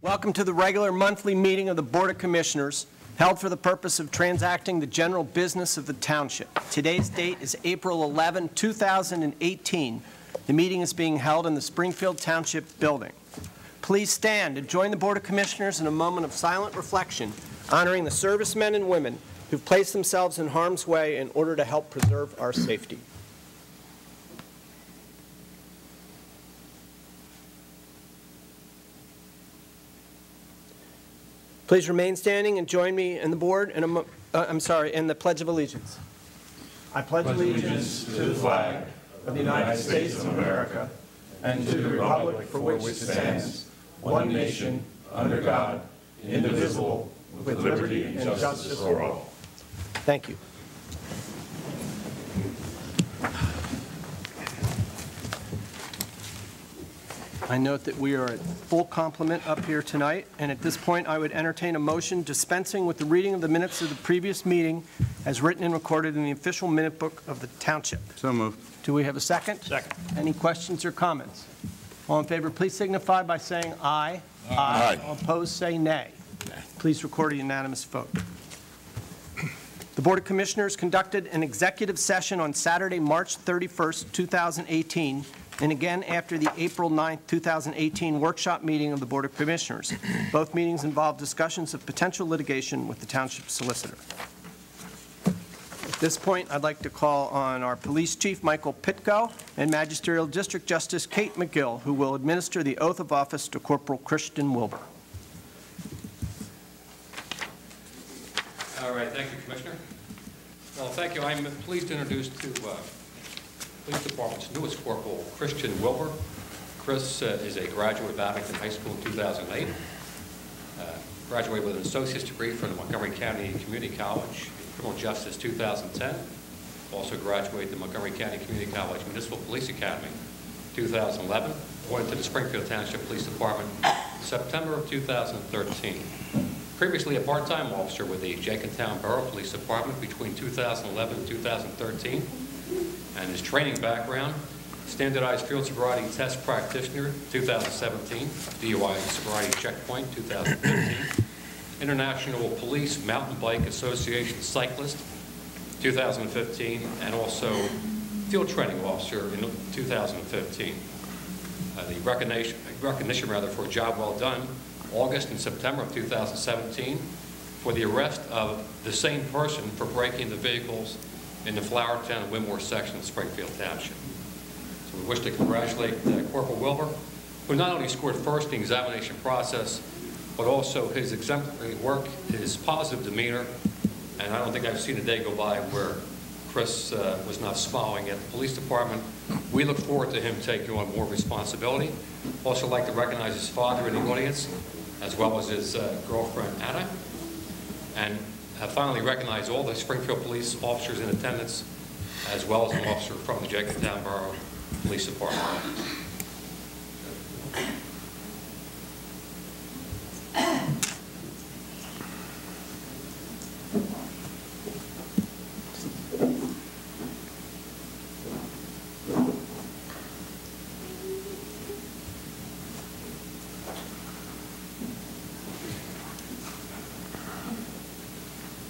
Welcome to the regular monthly meeting of the Board of Commissioners, held for the purpose of transacting the general business of the township. Today's date is April 11, 2018. The meeting is being held in the Springfield Township Building. Please stand and join the Board of Commissioners in a moment of silent reflection, honoring the servicemen and women who've placed themselves in harm's way in order to help preserve our safety. Please remain standing and join me and the board in a, mo- uh, I'm sorry, in the Pledge of Allegiance. I pledge allegiance. Thank you. I note that we are at full complement up here tonight, and at this point, I would entertain a motion dispensing with the reading of the minutes of the previous meeting as written and recorded in the official minute book of the township. So moved. Do we have a second? Second. Any questions or comments? All in favor, please signify by saying aye. Aye. All opposed, say nay. Please record a unanimous vote. The Board of Commissioners conducted an executive session on Saturday, March 31st, 2018, and again after the April 9th, 2018 workshop meeting of the Board of Commissioners. Both meetings involved discussions of potential litigation with the Township Solicitor. At this point, I'd like to call on our Police Chief, Michael Pitko, and Magisterial District Justice Kate McGill, who will administer the oath of office to Corporal Christian Wilbur. All right, thank you, Commissioner. Well, thank you. I'm pleased to introduce to uh, Police Department's newest corporal, Christian Wilbur. Chris uh, is a graduate of Abington High School in 2008. Uh, Graduated with an associate's degree from the Montgomery County Community College in Criminal Justice 2010. Also graduated the Montgomery County Community College Municipal Police Academy 2011. Went to the Springfield Township Police Department September of 2013. Previously a part-time officer with the Jenkintown Borough Police Department between 2011 and 2013, and his training background, standardized field sobriety test practitioner, 2017, DUI and sobriety checkpoint, 2015, International Police Mountain Bike Association cyclist, 2015, and also field training officer in 2015 uh, the recognition, recognition rather, for a job well done, August and September of 2017, for the arrest of the same person for breaking the vehicles in the Flower Town and Winmore section of Springfield Township. So we wish to congratulate uh, Corporal Wilbur, who not only scored first in the examination process, but also his exemplary work, his positive demeanor, and I don't think I've seen a day go by where Chris uh, was not smiling at the police department. We look forward to him taking on more responsibility. Also like to recognize his father in the audience, as well as his uh, girlfriend Anna, and I finally recognize all the Springfield police officers in attendance, as well as an officer from the Jenkintown Borough Police Department.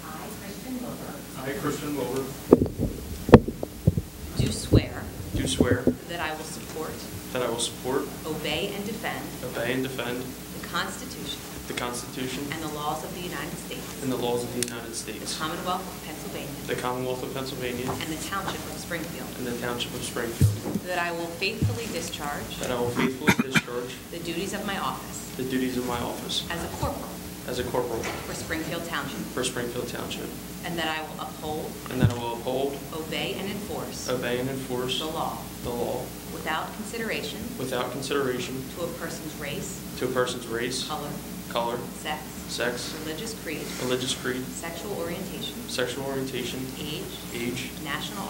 I, Kristen Wilbur, I, Christian Wilbur, do swear do swear that I will support, that I will support, obey, and defend obey, and defend the Constitution the Constitution and the laws of the United States, and the laws of the United the States, Commonwealth of Pennsylvania, the Commonwealth of Pennsylvania, and the Township of Springfield, and the Township of Springfield, that I will faithfully discharge that I will faithfully discharge the duties of my office the duties of my office as a corporal as a corporal for Springfield Township, for Springfield Township, and that I will uphold, and that I will uphold, obey, and enforce obey, and enforce the law the law without consideration without consideration to a person's race, to a person's race, color, color, sex, sex, religious creed, religious creed, sexual orientation, sexual orientation, age, age, national